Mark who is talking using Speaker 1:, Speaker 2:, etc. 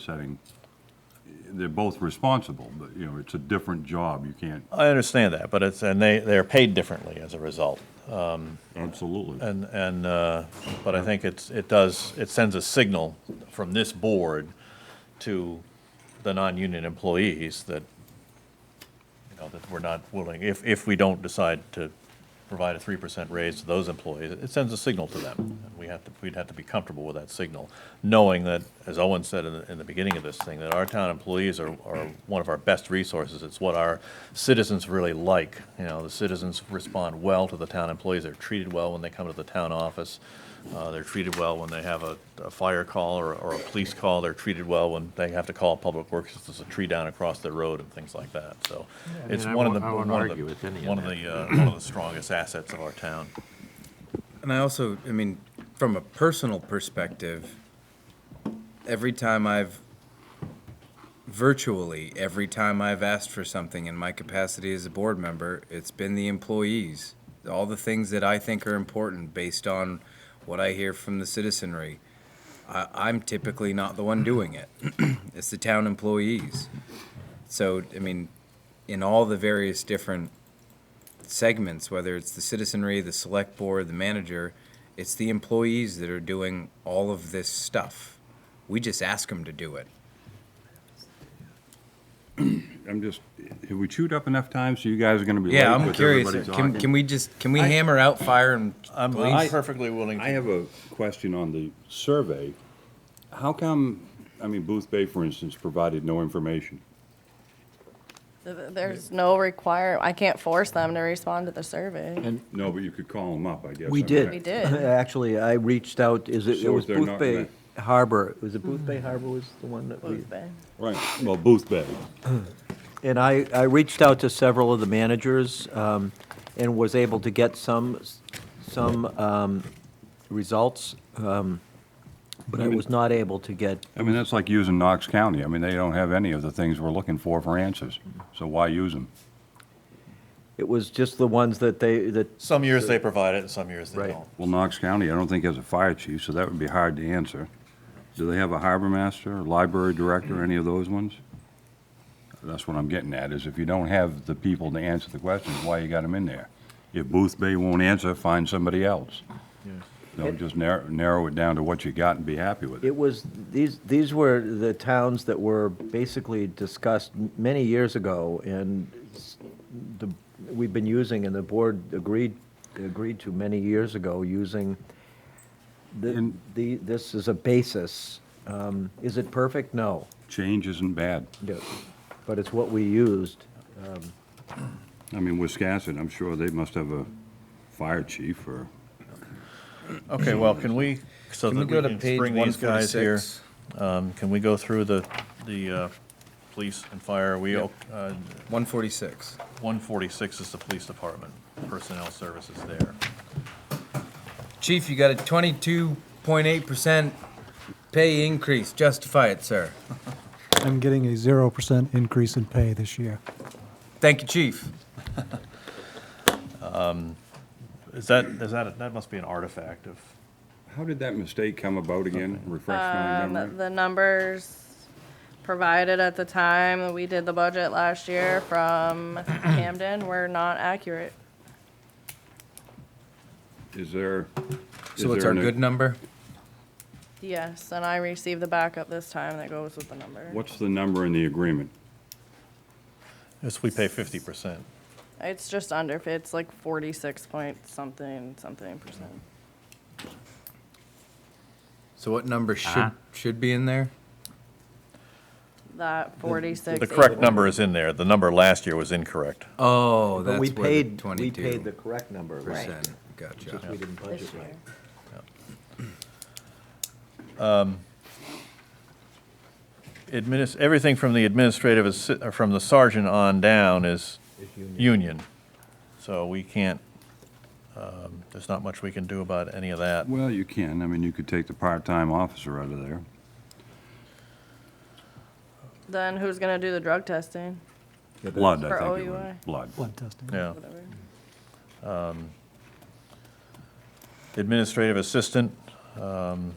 Speaker 1: setting, they're both responsible, but, you know, it's a different job, you can't,
Speaker 2: I understand that, but it's, and they, they're paid differently as a result.
Speaker 1: absolutely.
Speaker 2: And, and, uh, but I think it's, it does, it sends a signal from this board to the non-union employees that, you know, that we're not willing, if, if we don't decide to provide a three percent raise to those employees, it sends a signal to them. And We have to, we'd have to be comfortable with that signal, knowing that, as Owen said in, the- in the beginning of this thing, that our town employees are, are one of our best resources. It's what our citizens really like. You know, the citizens respond well to the town employees. They're treated well when they come to the town office. Uh, they're treated well when they have a, a fire call or, or a police call. They're treated well when they have to call Public Works if there's a tree down across their road and things like that. So
Speaker 3: mean,
Speaker 2: it's
Speaker 3: I
Speaker 2: one of the,
Speaker 3: won't- I
Speaker 2: one
Speaker 3: won't
Speaker 2: of
Speaker 3: argue with any
Speaker 2: the,
Speaker 3: of
Speaker 2: one of
Speaker 3: that.
Speaker 2: the, uh, one of the strongest assets of our town.
Speaker 4: And I also, I mean, from a personal perspective, every time I've virtually every time I've asked for something in my capacity as a board member, it's been the employees. All the things that I think are important based on what I hear from the citizenry. I, I'm typically not the one doing it. it's the town employees. So, I mean, in all the various different segments, whether it's the citizenry, the select board, the manager, it's the employees that are doing all of this stuff. We just ask them to do it.
Speaker 1: I'm just, have we chewed up enough time, so you guys are gonna be late
Speaker 4: Yeah, I'm
Speaker 1: with
Speaker 4: curious.
Speaker 1: everybody
Speaker 4: Can,
Speaker 1: talking?
Speaker 4: can we just, can we hammer out fire and
Speaker 2: I'm, uh, I'm
Speaker 4: police?
Speaker 2: perfectly willing
Speaker 1: I
Speaker 2: to
Speaker 1: have a question on the survey. How come, I mean, Booth Bay, for instance, provided no information?
Speaker 5: Th- th- There's no require, I can't force them to respond to the survey.
Speaker 1: No, but you could call them up, I guess.
Speaker 3: We
Speaker 1: I'm
Speaker 3: did.
Speaker 1: right.
Speaker 5: We did.
Speaker 3: Actually, I reached out, is it, it
Speaker 1: So
Speaker 3: was
Speaker 1: if they're
Speaker 3: Booth
Speaker 1: not
Speaker 3: Bay
Speaker 1: met-
Speaker 3: Harbor, was it Booth Bay
Speaker 5: Mm-hmm.
Speaker 3: Harbor was the one that we?
Speaker 5: Booth Bay.
Speaker 1: Right, well, Booth Bay,
Speaker 3: And I, I reached out to several of the managers um, and was able to get some, some um, results, um, but I was not able to get,
Speaker 1: I mean, that's like using Knox County, I mean, they don't have any of the things we're looking for for answers, so why use them?
Speaker 3: it was just the ones that they, that,
Speaker 2: Some years they provide it, and some years they
Speaker 3: Right.
Speaker 2: don't.
Speaker 1: Well, Knox County, I don't think has a fire chief, so that would be hard to answer. Do they have a harbor master, library director, any of those ones? That's what I'm getting at, is if you don't have the people to answer the questions, why you got them in there? If Booth Bay won't answer, find somebody else. Don't just narrow, narrow it down to what you got and be happy with it.
Speaker 3: it was, these, these were the towns that were basically discussed many years ago, and s- the, we've been using, and the board agreed, agreed to many years ago, using the,
Speaker 1: And-
Speaker 3: the, this is a basis. Um, Is it perfect? No.
Speaker 1: Change isn't bad.
Speaker 3: Yeah, but it's what we used.
Speaker 1: I mean, Wisconsin, I'm sure they must have a fire chief or,
Speaker 2: Okay, well, can we, so
Speaker 4: Can we
Speaker 2: that
Speaker 4: go to
Speaker 2: we can
Speaker 4: page
Speaker 2: bring these guys here?
Speaker 4: 146?
Speaker 2: Um, Can we go through the, the uh, police and fire? Are We,
Speaker 4: Yeah.
Speaker 2: o- uh,
Speaker 4: 146.
Speaker 2: 146 is the police department, personnel services there.
Speaker 4: Chief, you got a 22.8% pay increase. Justify it, sir.
Speaker 6: I'm getting a 0% increase in pay this year.
Speaker 4: Thank you, chief.
Speaker 2: Is that, is that, that must be an artifact of,
Speaker 1: how did that mistake come about again? Refresh my
Speaker 5: Um,
Speaker 1: memory.
Speaker 5: The numbers provided at the time that we did the budget last year from Camden were not accurate.
Speaker 1: Is there? is
Speaker 4: So it's
Speaker 1: there
Speaker 4: our
Speaker 1: an-
Speaker 4: good number?
Speaker 5: Yes, and I received the backup this time that goes with the number.
Speaker 1: What's the number in the agreement?
Speaker 2: yes, we pay 50%.
Speaker 5: It's just under, it's like forty-six point something, something percent.
Speaker 4: So what number should,
Speaker 3: Uh-huh.
Speaker 4: should be in there?
Speaker 5: That forty-six.
Speaker 2: The correct number is in there. The number last year was incorrect.
Speaker 4: Oh,
Speaker 3: But
Speaker 4: that's
Speaker 3: we
Speaker 4: where the
Speaker 3: paid, we paid the
Speaker 4: 22%.
Speaker 3: correct number.
Speaker 5: Right.
Speaker 3: Just
Speaker 4: Gotcha.
Speaker 3: we didn't budget
Speaker 5: This
Speaker 3: right.
Speaker 5: year.
Speaker 2: Adminis, everything from the administrative, assi- uh, from the sergeant on down is union. So we can't, um, there's not much we can do about any of that.
Speaker 1: Well, you can. I mean, you could take the part-time officer out of there.
Speaker 5: Then who's gonna do the drug testing?
Speaker 1: Blood, I
Speaker 5: For
Speaker 1: think it
Speaker 5: OUI.
Speaker 1: was. Blood.
Speaker 6: Blood testing.
Speaker 2: Yeah.
Speaker 5: Whatever.
Speaker 2: Administrative assistant, um,